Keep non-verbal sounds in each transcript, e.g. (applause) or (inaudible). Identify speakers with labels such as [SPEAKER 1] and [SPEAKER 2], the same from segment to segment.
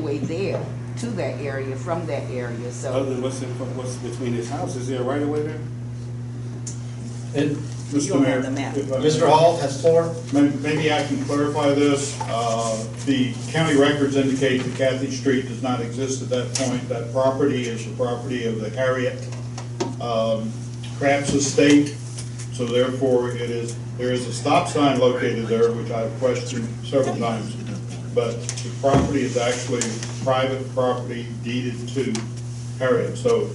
[SPEAKER 1] way there to that area, from that area,
[SPEAKER 2] Other
[SPEAKER 1] so.
[SPEAKER 2] than what's in, what's between his house, is there a right of way there?
[SPEAKER 3] And
[SPEAKER 1] You
[SPEAKER 2] Mr.
[SPEAKER 1] don't
[SPEAKER 2] Mayor,
[SPEAKER 1] have the map.
[SPEAKER 2] if I may-
[SPEAKER 3] Mr. Hall has floor.
[SPEAKER 4] May- Maybe I can clarify this. Uh, The county records indicate that Cathy Street does not exist at that point. That property is the property of the Harriet um, Crafts Estate, so therefore it is, there is a stop sign located there, which I've questioned several times, but the property is actually private property deeded to Harriet. So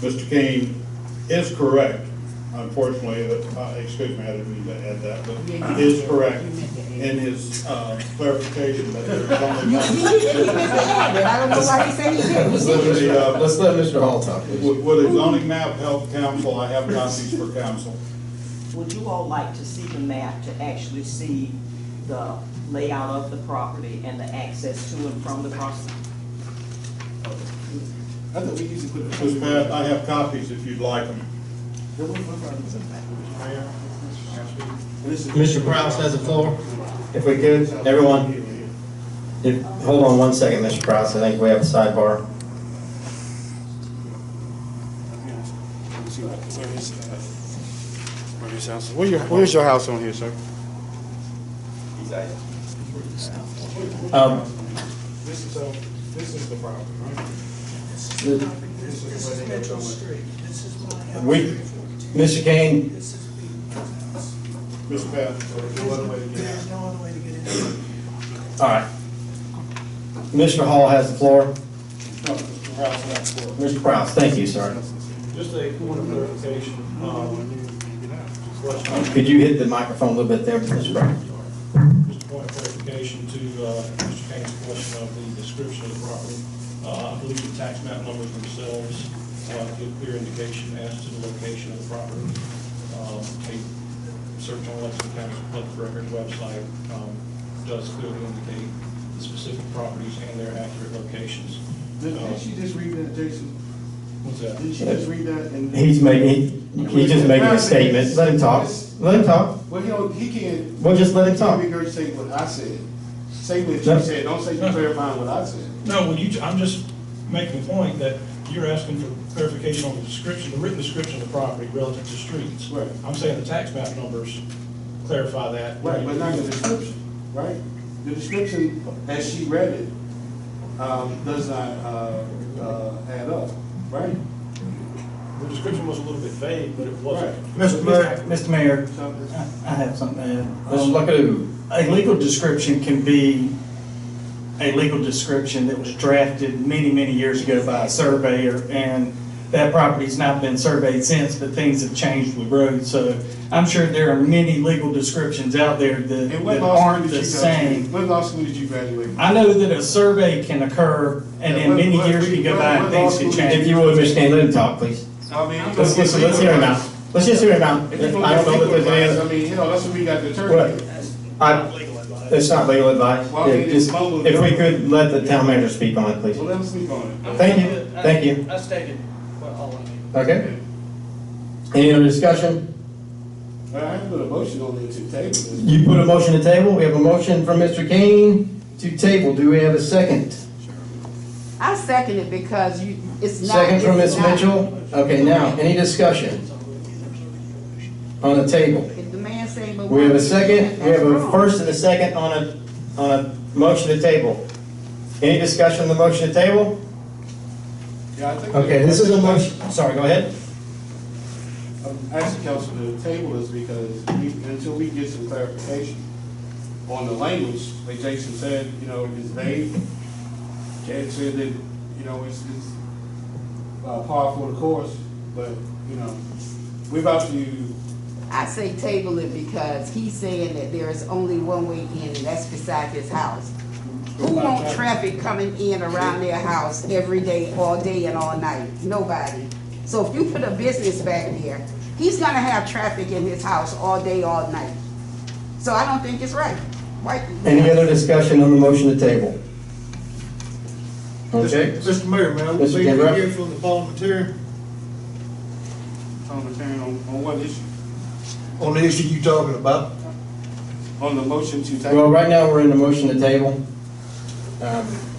[SPEAKER 4] Mr. Kane is correct, unfortunately, that- uh, excuse me, I didn't mean to add that,
[SPEAKER 1] Yeah,
[SPEAKER 4] but
[SPEAKER 1] you-
[SPEAKER 4] is correct
[SPEAKER 1] you meant to add.
[SPEAKER 4] in his uh, clarification that there's only
[SPEAKER 1] You-
[SPEAKER 4] one.
[SPEAKER 1] (laughs) he- he didn't add it. I don't know why he said he did. He
[SPEAKER 3] Let's let
[SPEAKER 1] didn't.
[SPEAKER 4] Literally,
[SPEAKER 3] Mr.
[SPEAKER 4] uh,
[SPEAKER 3] Let's let Mr. Hall talk, please.
[SPEAKER 4] Would would a zoning map help council? I have copies for council.
[SPEAKER 5] Would you all like to see the map to actually see the layout of the property and the access to and from the property?
[SPEAKER 2] I thought we usually put. a-
[SPEAKER 4] Ms. Pat, I have copies if you'd like them.
[SPEAKER 2] This is-
[SPEAKER 3] Mr. Kraus has the floor. If we could, everyone, if, hold on one second, Mr. Kraus, I think we have a sidebar.
[SPEAKER 2] uh, Where your, where's your house on here, sir?
[SPEAKER 3] Um,
[SPEAKER 6] This is,
[SPEAKER 2] um,
[SPEAKER 6] uh, this is the problem, right? This is where they go with it.
[SPEAKER 3] we, Mr. Kane,
[SPEAKER 4] Ms. Pat,
[SPEAKER 6] No other way to get out.
[SPEAKER 3] all right. Mr. Hall has the floor.
[SPEAKER 4] no, Mr. Kraus, that's for.
[SPEAKER 3] Mr. Kraus, thank you, sir.
[SPEAKER 6] Just a point of clarification, um, question,
[SPEAKER 3] Could you hit the microphone a little bit there, Mr. Kraus?
[SPEAKER 6] just a point of clarification to, uh, Mr. Kane's question of the description of the property. Uh, I believe the tax map numbers themselves, uh, give clear indication as to the location of the property. Um, a search on Lexington County's public records website, um, does clearly indicate the specific properties and their accurate locations. Uh,
[SPEAKER 2] Didn't she just read that, Jason?
[SPEAKER 6] What's that?
[SPEAKER 2] Didn't she just read that and?
[SPEAKER 3] He's making, he- he's just making a statement. Let him talk. Let him talk.
[SPEAKER 2] Well, he don't, he can't.
[SPEAKER 3] Well, just let him
[SPEAKER 2] He can't
[SPEAKER 3] talk.
[SPEAKER 2] regurgitate what I said. Say what you
[SPEAKER 3] No.
[SPEAKER 2] said, don't say you clarifying what I said.
[SPEAKER 6] No, well, you, I'm just making the point that you're asking for clarification on the description, the written description of the property relative to streets.
[SPEAKER 2] Right.
[SPEAKER 6] I'm saying the tax map numbers clarify that.
[SPEAKER 2] Right, but not the description, right? The description, as she read it, um, does not, uh, uh, add up, right?
[SPEAKER 6] The description was a little bit vague, but it
[SPEAKER 2] Right.
[SPEAKER 6] wasn't.
[SPEAKER 7] Mr. Mayor, Mr. Mayor,
[SPEAKER 2] So,
[SPEAKER 7] I I have something to add.
[SPEAKER 3] Let's look
[SPEAKER 7] Um,
[SPEAKER 3] at who.
[SPEAKER 7] A legal description can be a legal description that was drafted many, many years ago by a surveyor, and that property's not been surveyed since, but things have changed with roads, so I'm sure there are many legal descriptions out there that
[SPEAKER 2] And
[SPEAKER 7] that
[SPEAKER 2] what law
[SPEAKER 7] aren't
[SPEAKER 2] school
[SPEAKER 7] the
[SPEAKER 2] did you go to?
[SPEAKER 7] same.
[SPEAKER 2] What law school did you graduate from?
[SPEAKER 7] I know that a survey can occur, and
[SPEAKER 2] And
[SPEAKER 7] then
[SPEAKER 2] what-
[SPEAKER 7] many
[SPEAKER 2] what-
[SPEAKER 7] years can go by
[SPEAKER 2] what
[SPEAKER 7] and things can
[SPEAKER 2] law school did
[SPEAKER 7] change.
[SPEAKER 3] If you would, Mr. Kane, let him talk, please.
[SPEAKER 2] I mean,
[SPEAKER 3] Let's listen, let's hear him out. Let's just hear him out. I
[SPEAKER 2] If you're
[SPEAKER 3] don't
[SPEAKER 2] gonna give
[SPEAKER 3] know if
[SPEAKER 2] legal
[SPEAKER 3] there's any
[SPEAKER 2] advice,
[SPEAKER 3] other.
[SPEAKER 2] I mean, you know, that's what we got to
[SPEAKER 3] Right.
[SPEAKER 2] determine.
[SPEAKER 3] I, it's not legal advice.
[SPEAKER 2] Well, I mean,
[SPEAKER 3] It just-
[SPEAKER 2] it's mumble
[SPEAKER 3] If we
[SPEAKER 2] jumble.
[SPEAKER 3] could let the town manager speak on it, please.
[SPEAKER 2] Well, let them speak on it.
[SPEAKER 3] Thank you, thank you.
[SPEAKER 8] I stated what all I need.
[SPEAKER 3] Okay? Any other discussion?
[SPEAKER 2] All right, I put a motion on there to table this.
[SPEAKER 3] You put a motion to table. We have a motion from Mr. Kane to table. Do we have a second?
[SPEAKER 1] I second it because you, it's not.
[SPEAKER 3] Second from
[SPEAKER 1] it's
[SPEAKER 3] Ms.
[SPEAKER 1] not-
[SPEAKER 3] Mitchell. Okay, now, any discussion? On the table.
[SPEAKER 1] If the man say. but
[SPEAKER 3] We have a
[SPEAKER 1] one,
[SPEAKER 3] second, we
[SPEAKER 1] that's
[SPEAKER 3] have a
[SPEAKER 1] wrong.
[SPEAKER 3] first and a second on a, on a motion to table. Any discussion on the motion to table?
[SPEAKER 2] Yeah, I think.
[SPEAKER 3] Okay, this is a motion, I'm sorry, go ahead.
[SPEAKER 2] I'm asking council to table this because we, until we get some clarification on the language, like Jason said, you know, is vague. Chad said that, you know, it's, it's uh, par for the course, but, you know, we're about to,
[SPEAKER 1] I say table it because he's saying that there is only one way in, and that's beside his house. Who want traffic coming in around their house every day, all day and all night? Nobody. So if you put a business back there, he's gonna have traffic in his house all day, all night. So I don't think it's right. Right?
[SPEAKER 3] Any other discussion on the motion to table? Okay,
[SPEAKER 8] Mr. Mayor, man, I would
[SPEAKER 3] Mr.
[SPEAKER 8] be
[SPEAKER 3] Gambrell?
[SPEAKER 8] here from the volunteer
[SPEAKER 2] on the um, turn on, on what issue?
[SPEAKER 8] on the issue you talking about.
[SPEAKER 2] On the motion to table.
[SPEAKER 3] well, right now, we're in the motion to table. Um,